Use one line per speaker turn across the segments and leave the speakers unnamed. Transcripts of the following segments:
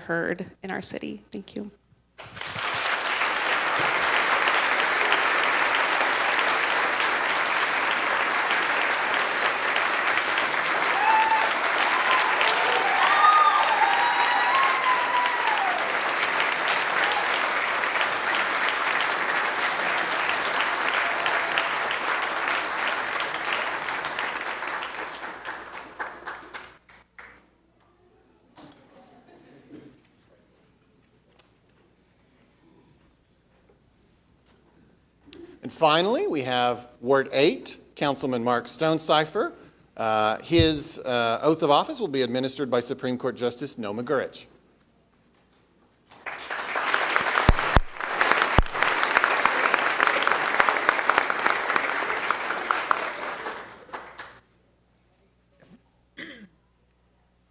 underheard in our city. Thank you.
And finally, we have Ward 8, Councilman Mark Stonecipher. Uh, His uh, oath of office will be administered by Supreme Court Justice Noam Gurich.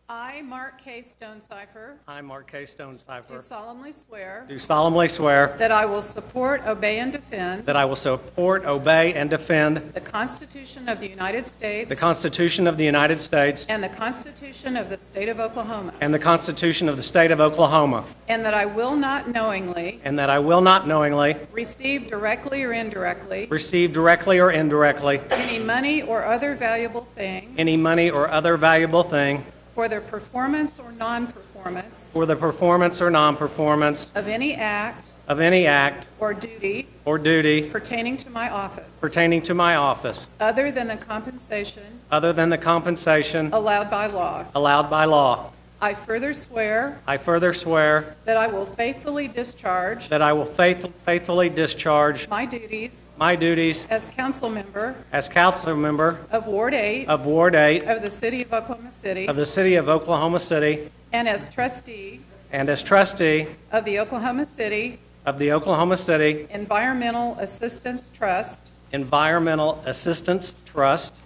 I, Mark K. Stonecipher,
I, Mark K.
do
Stonecipher,
solemnly swear
do solemnly swear
that I will support, obey, and defend
that I will support, obey, and defend
the Constitution of the United States
the Constitution of the United States
and the Constitution of the State of Oklahoma,
and the Constitution of the State of Oklahoma,
and that I will not knowingly
and that I will not knowingly
receive directly or indirectly
receive directly or indirectly
any money or other valuable thing
any money or other valuable thing
for the performance or non-performance
for the performance or non-performance
of any act
of any act
or duty
or duty
pertaining to my office,
pertaining to my office,
other than the compensation
other than the compensation
allowed by law.
allowed by law.
I further swear
I further swear
That I will faithfully discharge
that I will faith- faithfully discharge
my duties
my duties
as council member
as council member
of Ward 8
of Ward 8
of the City of Oklahoma City
of the City of Oklahoma City
and as trustee
and as trustee
of the Oklahoma City
of the Oklahoma City
Environmental Assistance Trust,
Environmental Assistance Trust,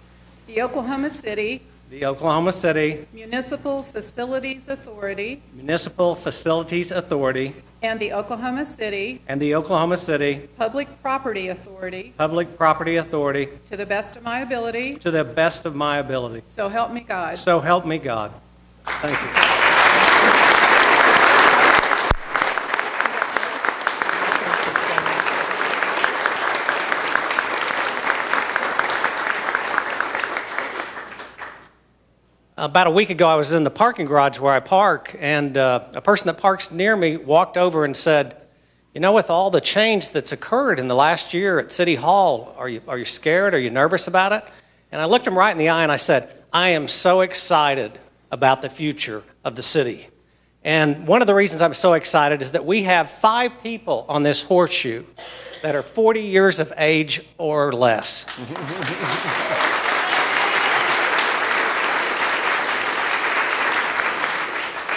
the Oklahoma City
the Oklahoma City
Municipal Facilities Authority,
Municipal Facilities Authority,
and the Oklahoma City
and the Oklahoma City
Public Property Authority
Public Property Authority
to the best of my ability,
to the best of my ability.
so help me God.
So help me God. Thank you. About a week ago, I was in the parking garage where I park, and uh, a person that parks near me walked over and said, "You know, with all the change that's occurred in the last year at City Hall, are you are you scared? Are you nervous about it?" And I looked him right in the eye and I said, "I am so excited about the future of the city." And one of the reasons I'm so excited is that we have five people on this horseshoe that are 40 years of age or less.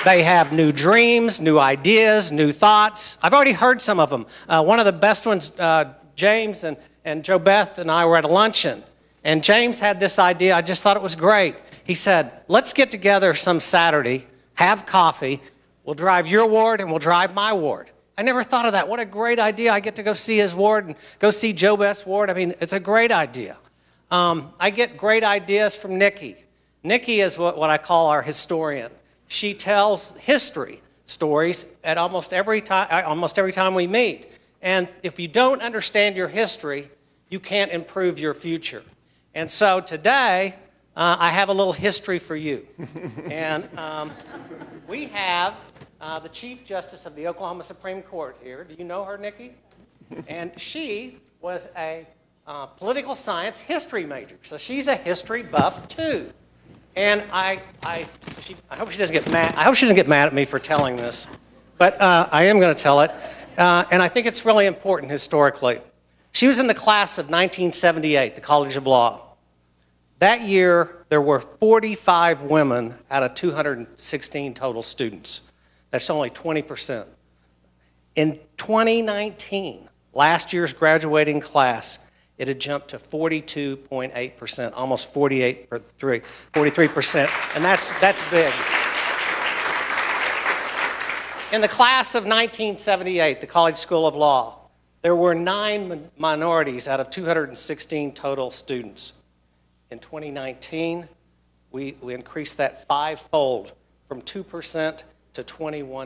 They have new dreams, new ideas, new thoughts. I've already heard some of them. Uh, one of the best ones, uh, James and, and Joe Beth and I were at a luncheon, and James had this idea. I just thought it was great. He said, Let's get together some Saturday, have coffee. We'll drive your ward and we'll drive my ward. I never thought of that. What a great idea. I get to go see his ward and go see Joe Beth's ward. I mean, it's a great idea. Um, I get great ideas from Nikki. Nikki is what, what I call our historian. She tells history stories at almost every time, almost every time we meet. And if you don't understand your history, you can't improve your future. And so today, uh, I have a little history for you. and um, we have uh, the Chief Justice of the Oklahoma Supreme Court here. Do you know her, Nikki? and she was a uh, political science history major, so she's a history buff too. And I, I, she, I hope she doesn't get mad. I hope she doesn't get mad at me for telling this, but uh, I am going to tell it, uh, and I think it's really important historically. She was in the class of 1978, the College of Law. That year, there were 45 women out of 216 total students. That's only 20%. In 2019, last year's graduating class, it had jumped to 42.8%, almost 48, or three- 43%, and that's, that's big. In the class of 1978, the College School of Law, there were nine min- minorities out of 216 total students. In 2019, we, we increased that fivefold from 2% to 21